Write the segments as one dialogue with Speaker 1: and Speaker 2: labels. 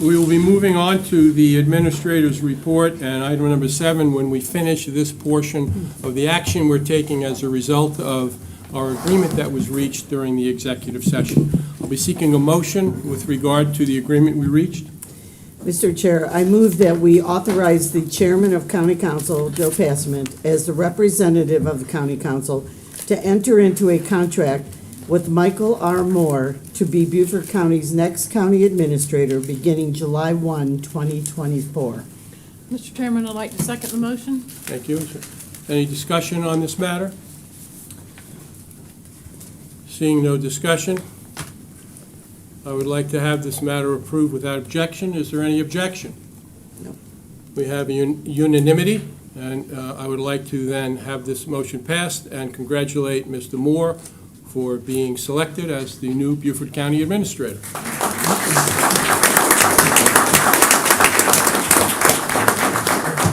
Speaker 1: We will be moving on to the administrator's report and item number seven, when we finish this portion of the action we're taking as a result of our agreement that was reached during the executive session. I'll be seeking a motion with regard to the agreement we reached.
Speaker 2: Mr. Chair, I move that we authorize the chairman of county council, Joe Passmont, as the representative of the county council, to enter into a contract with Michael R. Moore to be Beaufort County's next county administrator beginning July 1, 2024.
Speaker 3: Mr. Chairman, I'd like to second the motion.
Speaker 1: Thank you. Is there Any discussion on this matter? Seeing no discussion, I would like to have this matter approved without objection. Is there any objection?
Speaker 2: No.
Speaker 1: We have un- unanimity, and uh, I would like to then have this motion passed and congratulate Mr. Moore for being selected as the new Beaufort County Administrator.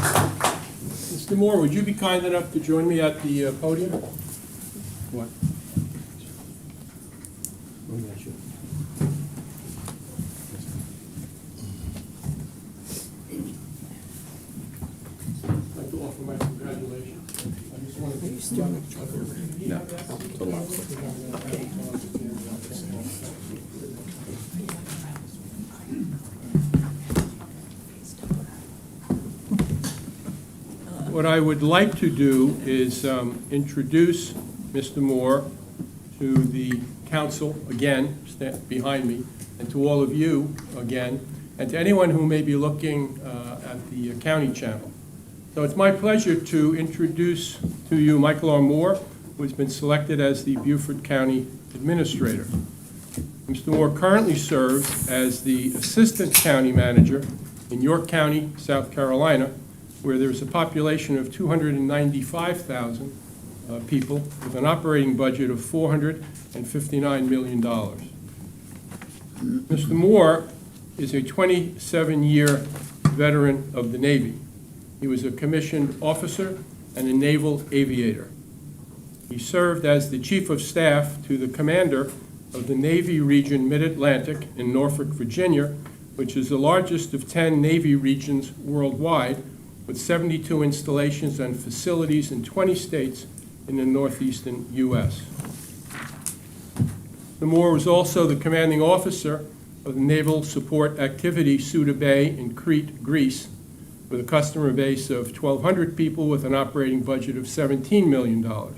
Speaker 1: Mr. Moore, would you be kind enough to join me at the uh, podium? What? Oh, yeah, sure. I'd like to offer my congratulations. I just wanted to- What I would like to do is um, introduce Mr. Moore to the council again, stand behind me, and to all of you again, and to anyone who may be looking uh, at the county channel. So it's my pleasure to introduce to you Michael R. Moore, who's been selected as the Beaufort County Administrator. Mr. Moore currently serves as the Assistant County Manager in York County, South Carolina, where there's a population of 295,000 uh, people with an operating budget of $459 million. Mr. Moore is a 27-year veteran of the Navy. He was a commissioned officer and a naval aviator. He served as the Chief of Staff to the Commander of the Navy Region Mid-Atlantic in Norfolk, Virginia, which is the largest of 10 Navy regions worldwide, with 72 installations and facilities in 20 states in the northeastern U.S. The Moore was also the commanding officer of the Naval Support Activity Suda Bay in Crete, Greece, with a customer base of 1,200 people with an operating budget of $17 million.